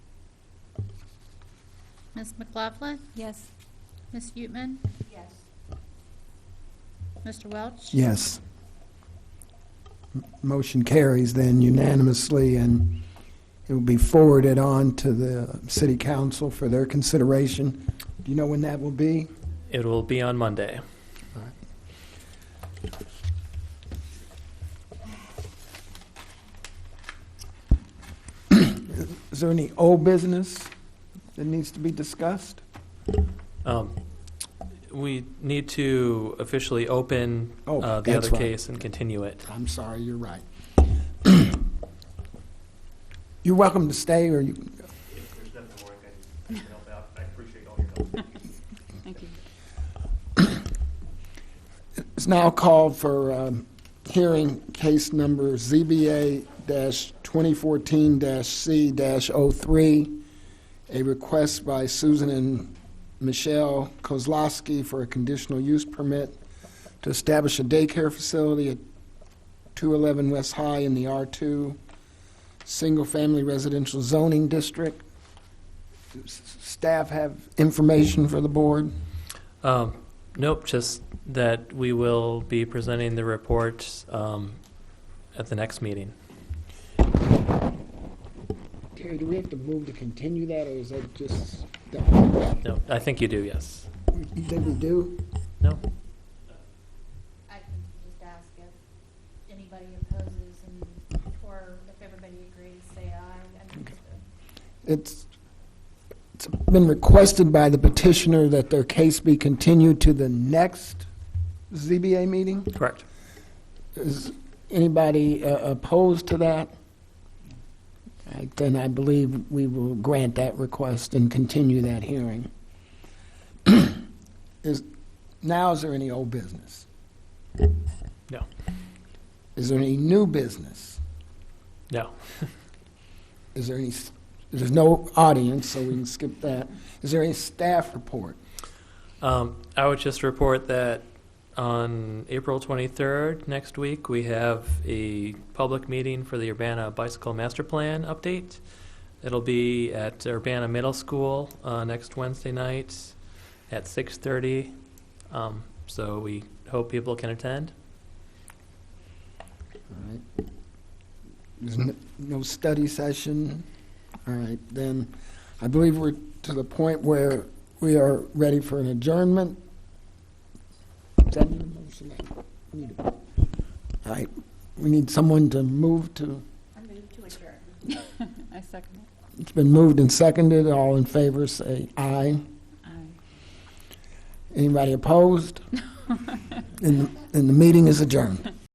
Ms. McLaughlin, Yes. Ms. Yutman, Yes. Mr. Welch? Yes. M- Motion carries then unanimously, and it will be forwarded on to the city council for their consideration. Do you know when that will be? It will be on Monday. Is there any old business that needs to be discussed? Um, We need to officially open Oh, uh, the that's other right. case and continue it. I'm sorry, you're right. You're welcome to stay, or you, If there's nothing more I can, I can help out, I appreciate all your help. Thank you. It's now called for um, hearing case number ZBA-2014-C-03, a request by Susan and Michelle Kozlowski for a conditional use permit to establish a daycare facility at 211 West High in the R2 Single Family Residential Zoning District. S- Staff have information for the board? Um, Nope, just that we will be presenting the report um, at the next meeting. Terry, do we have to move to continue that, or is that just, No, I think you do, yes. you think we do? No? I can just ask if anybody opposes and, or if everybody agrees, say aye. It's, it's been requested by the petitioner that their case be continued to the next ZBA meeting? Correct. Is anybody uh, opposed to that? All right, Then I believe we will grant that request and continue that hearing. Is, now is there any old business? No. Is there any new business? No. Is there any, s- there's no audience, so we can skip that. Is there any staff report? Um, I would just report that on April 23rd, next week, we have a public meeting for the Urbana Bicycle Master Plan update. It'll be at Urbana Middle School uh, next Wednesday night at 6:30. Um, So we hope people can attend. All right. There's n- no study session? All right, then, I believe we're to the point where we are ready for an adjournment. Is that need a motion? Need a- All right, we need someone to move to, I move to adjourn. I second it. it's been moved and seconded, all in favor, say aye. Aye. Anybody opposed? And, and the meeting is adjourned.